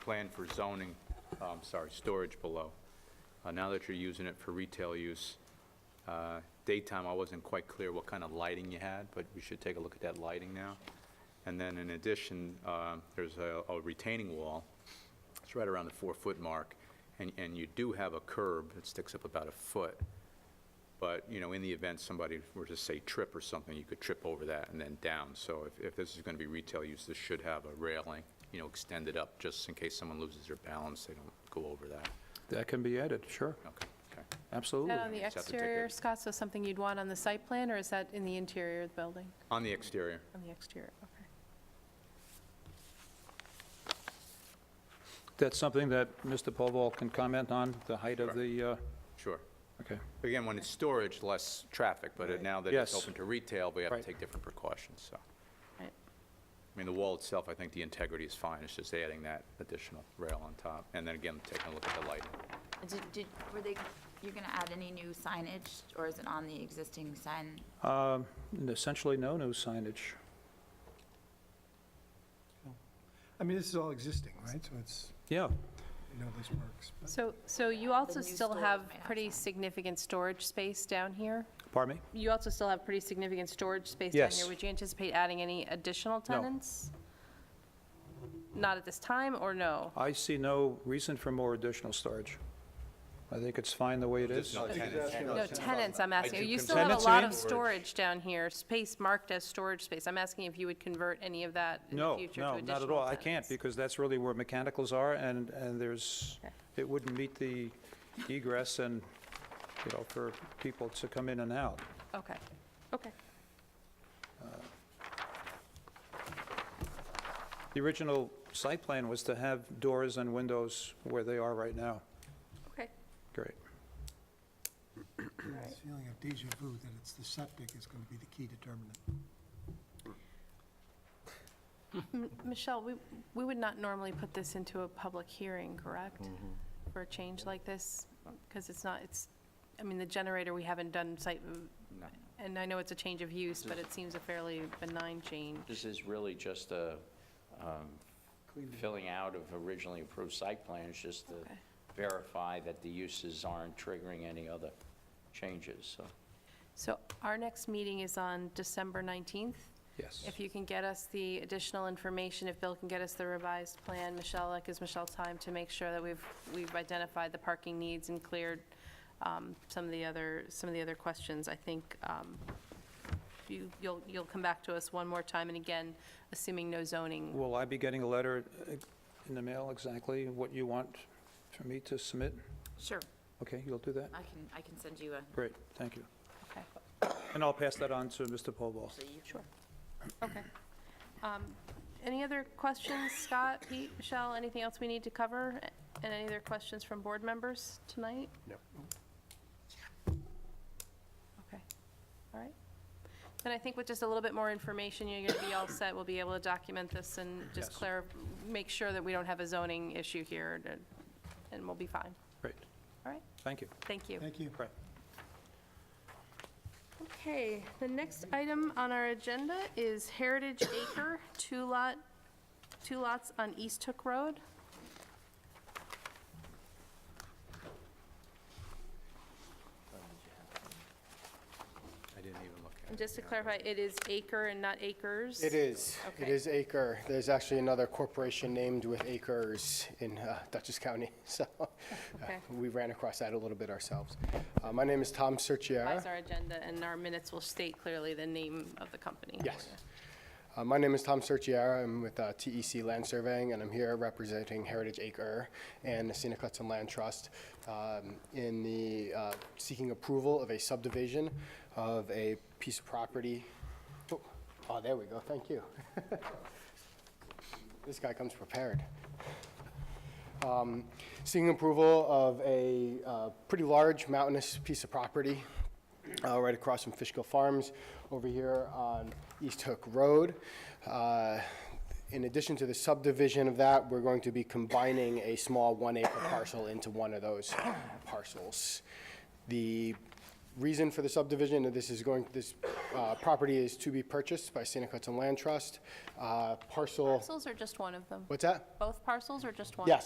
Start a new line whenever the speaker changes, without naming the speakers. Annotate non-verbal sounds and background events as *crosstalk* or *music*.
plan for zoning, oh, I'm sorry, storage below. Uh, Now that you're using it for retail use, uh, daytime, I wasn't quite clear what kind of lighting you had, but we should take a look at that lighting now. And then in addition, uh, there's a a retaining wall, it's right around the four-foot mark, and and you do have a curb that sticks up about a foot. But, you know, in the event somebody were to say trip or something, you could trip over that and then down. So if, if this is going to be retail use, this should have a railing, you know, extended up, just in case someone loses their balance, they don't go over that.
That can be added, sure,
Okay, okay.
absolutely.
That on the
Just have to take
exterior,
it.
Scott, so something you'd want on the site plan, or is that in the interior of the building?
On the exterior,
On the exterior, okay.
That's something that Mr. Povall can comment on, the height of
Correct.
the, uh,
sure.
okay.
Again, when it's storage, less traffic, but it- now that it's
Yes.
open to retail, we have to
Right.
take different precautions, so. I
Right.
mean, the wall itself, I think the integrity is fine, it's just adding that additional rail on top. And then again, taking a look at the lighting.
Did, did, were they, you're gonna add any new signage, or is it on the existing sign?
Um, and Essentially, no new signage.
I mean, this is all existing, right? So it's,
Yeah,
you know, this works. but-
So, so you also
new
still
storage
have
might have
pretty
some.
significant storage space down here?
pardon me?
You also still have pretty significant storage space down
Yes.
here. Would you anticipate adding any additional tenants? Not at this time, or no?
I see no reason for more additional storage. I think it's fine the way it is.
No tenants.
No tenants, I'm asking.
do
You still have a
Tenants
lot
in?
of storage down here, space marked as storage space. I'm asking if you would convert any of that in the
No,
future to
no,
additional
not at all. I can't,
tenants.
because that's really where mechanicals are, and, and there's, it wouldn't meet the egress and, you know, for people to come in and out.
Okay, okay.
The original site plan was to have doors and windows where they are right now.
Okay.
Great.
This feeling of deja vu that it's the septic is going to be the key determinant.
Michelle, we, we would not normally put this into a public hearing, correct? For a change like this? Because it's not, it's, I mean, the generator, we haven't done site,
No.
and I know it's a change of use, but it seems a fairly benign change.
This is really just a um, filling out of originally approved site plans, just to
Okay.
verify that the uses aren't triggering any other changes, so.
So our next meeting is on December 19th.
Yes.
If you can get us the additional information, if Bill can get us the revised plan, Michelle, that gives Michelle time to make sure that we've, we've identified the parking needs and cleared um, some of the other, some of the other questions. I think um, you, you'll, you'll come back to us one more time, and again, assuming no zoning.
Will I be getting a letter uh, in the mail exactly what you want for me to submit?
Sure,
Okay, you'll do that?
I can, I can send you a,
Great, thank you.
Okay.
And I'll pass that on to Mr. Povall.
so you. Sure.
Okay. Um, Any other questions, Scott, Pete, Michelle, anything else we need to cover? And any other questions from board members tonight? No. Okay, all right. Then I think with just a little bit more information, you're going to be all set. We'll be able to document this and just
Yes.
clear, make sure that we don't have a zoning issue here, and- and we'll be fine.
Great,
All right,
thank you.
thank you.
Thank you.
Right.
Okay, the next item on our agenda is Heritage Acre, two lot, two lots on East Hook Road.
I didn't even look at it.
And just to clarify, it is acre and not acres?
It is. It
Okay.
is Acre. There's actually another corporation named with acres in uh, Dutchess County, *laughs* so uh,
Okay.
we ran across that a little bit ourselves. Uh, My name is Tom Serchiara.
That's our agenda, and our minutes will state clearly the name of the company.
Yes. Uh, My name is Tom Serchiara. I'm with uh, TEC Land Surveying, and I'm here representing Heritage Acre and the Sina Clutson Land Trust um, in the uh, seeking approval of a subdivision of a piece of property. Oh, Oh, there we go. Thank you. This guy comes prepared. Um, Seeking approval of a uh, pretty large mountainous piece of property uh, right across from Fishkill Farms over here on East Hook Road. Uh, In addition to the subdivision of that, we're going to be combining a small one-acre parcel into one of those parcels. The reason for the subdivision, and this is going, this uh, property is to be purchased by Santa Hudson Land Trust. Uh, Parcel,
Parcels or just one of them?
what's that?
Both parcels or just one?
Yes,